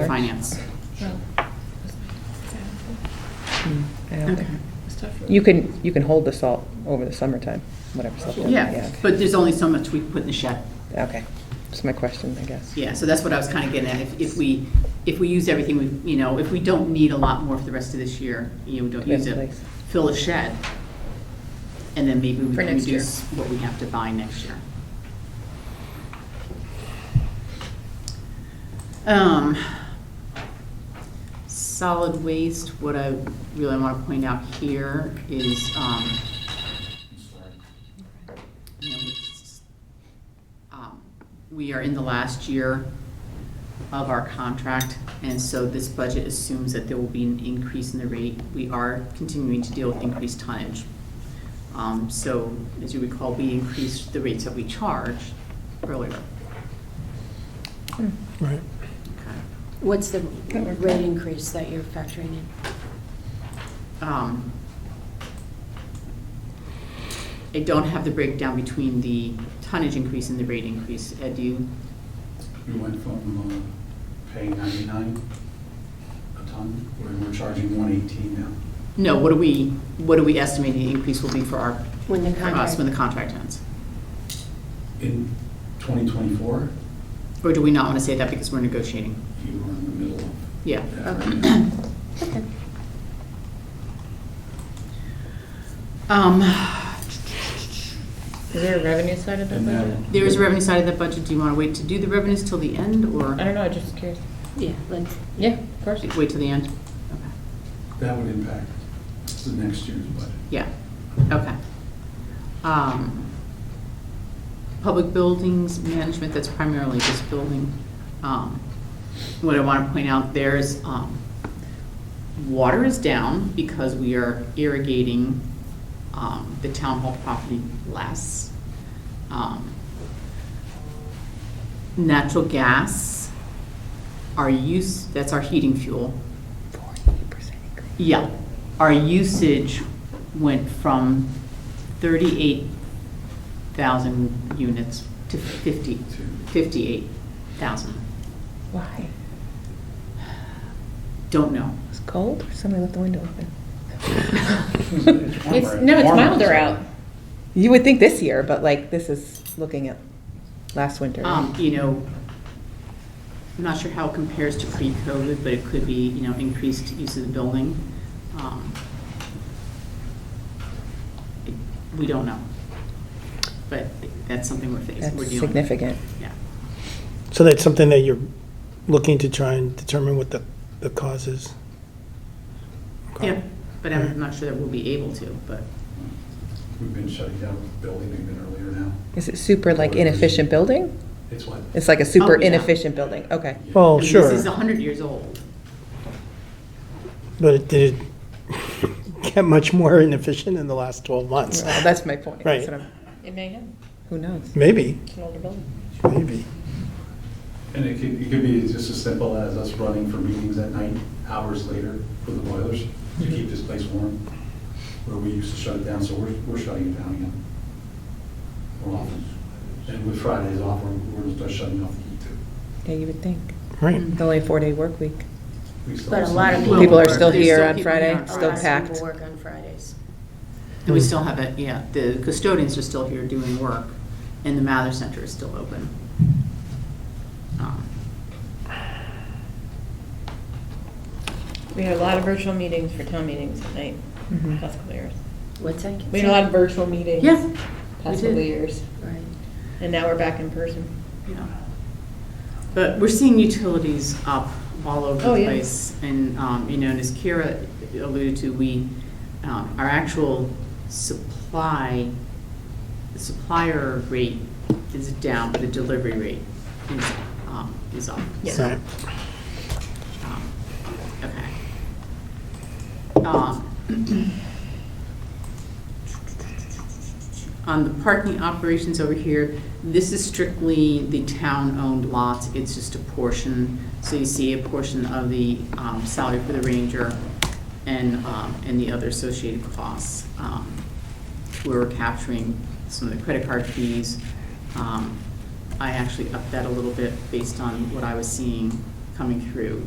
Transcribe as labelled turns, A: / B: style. A: for finance.
B: I don't
A: Okay.
B: think- You can, you can hold the salt over the summertime, whatever's left. over.
A: Yeah, but there's only so much we can put in the shed.
B: okay. Okay, that's my question, I guess.
A: Yeah, so that's what I was kind of getting at. If, if we, if we use everything, we, you know, if we don't need a lot more for the rest of this year, you know, we don't
B: Put in
A: use it,
B: place.
A: fill a shed. And then maybe we
C: For
A: can
C: next year.
A: reduce what we have to buy next year. Um, solid waste, what I really want to point out here is, um, you know, it's, um, we are in the last year of our contract, and so this budget assumes that there will be an increase in the rate. We are continuing to deal with increased tonnage. Um, So, as you recall, we increased the rates that we charge earlier.
D: Right.
A: Okay.
E: What's the rate increase that you're factoring in?
A: Um, I don't have the breakdown between the tonnage increase and the rate increase. Ed, do you?
F: We went from uh, paying 99 a ton, we're we're charging 118 now.
A: No, what do we, what do we estimate the increase will be for our,
E: When the
A: for us
E: contract?
A: when the contract ends?
F: In 2024,
A: Or do we not want to say that because we're negotiating?
F: you were in the middle of
A: Yeah.
F: that. right now.
E: Okay.
A: Um,
C: Is there a revenue side of that
F: And
C: budget?
F: that-
A: There is a revenue side of that budget. Do you want to wait to do the revenues till the end or
C: I don't know, I'm just curious.
E: Yeah, let's,
C: Yeah, of course.
A: wait till the end? Okay.
F: That would impact the next year's budget.
A: Yeah, okay. Um, Public buildings management, that's primarily this building. Um, What I want to point out there is, um, water is down because we are irrigating um, the town hall property less. Um, Natural gas, our use, that's our heating fuel, yeah, our usage went from thirty-eight thousand units to fifty, fifty-eight thousand.
C: Why?
A: Don't know.
B: It's cold, or somebody left the window open?
F: warmer.
C: It's, no, it's
F: Warmer.
C: milder out.
B: You would think this year, but like, this is looking at last winter.
A: Um, you know, I'm not sure how it compares to pre-COVID, but it could be, you know, increased use of the building. Um, it- We don't know. But that's something we're facing, we're dealing
B: That's
A: with.
B: significant.
A: Yeah.
D: So that's something that you're looking to try and determine what the, the cause is? Okay.
A: Yeah, but I'm not sure that we'll be able to, but.
F: We've been shutting down the building even earlier now.
B: Is it super like inefficient building?
F: It's what?
B: It's like a super
A: Oh, yeah.
B: inefficient building, okay.
F: Oh,
D: Well,
A: I mean,
D: sure,
A: This is 100 years old.
D: but it did get much more inefficient in the last 12 months.
B: Well, That's my point. That's
D: Right.
B: what I'm-
C: It may have,
B: Who knows?
D: Maybe,
C: it's an older building.
D: maybe.
F: And it could, it could be just as simple as us running for meetings at night, hours later for the boilers to keep this place warm, where we used to shut it down, so we're, we're shutting it down again. We're off. And with Fridays off, we're, we're gonna start shutting off the heat too.
B: Yeah, you would think.
D: Right.
B: It's only a four-day work week.
F: We still
E: But a
F: have
E: lot of
F: some-
E: people
B: People are
E: work.
B: still
A: There's
B: here
A: still
B: on
A: people here
B: Friday,
A: on
B: still
A: Friday.
B: packed.
E: People work on Fridays.
A: And we still have it, yeah, the custodians are still here doing work, and the Mather Center is still open. Um,
C: We had a lot of virtual meetings for town meetings at night, past couple of years.
E: What's that?
C: We had a lot of virtual meetings.
A: Yeah,
C: Past
A: we
C: couple of
A: did.
C: years,
E: Right.
C: and now we're back in person.
A: yeah. But we're seeing utilities up all over
C: Oh,
A: the
C: yeah.
A: place. And, um, you know, and as Kira alluded to, we, um, our actual supply, supplier rate is down, but the delivery rate is, um, is up.
C: Yeah.
D: Right.
A: Um, Okay. Um, On the parking operations over here, this is strictly the town-owned lots, it's just a portion. So you see a portion of the um, salary for the ranger and, um, and the other associated costs. Um, We're capturing some of the credit card fees. Um, I actually upped that a little bit based on what I was seeing coming through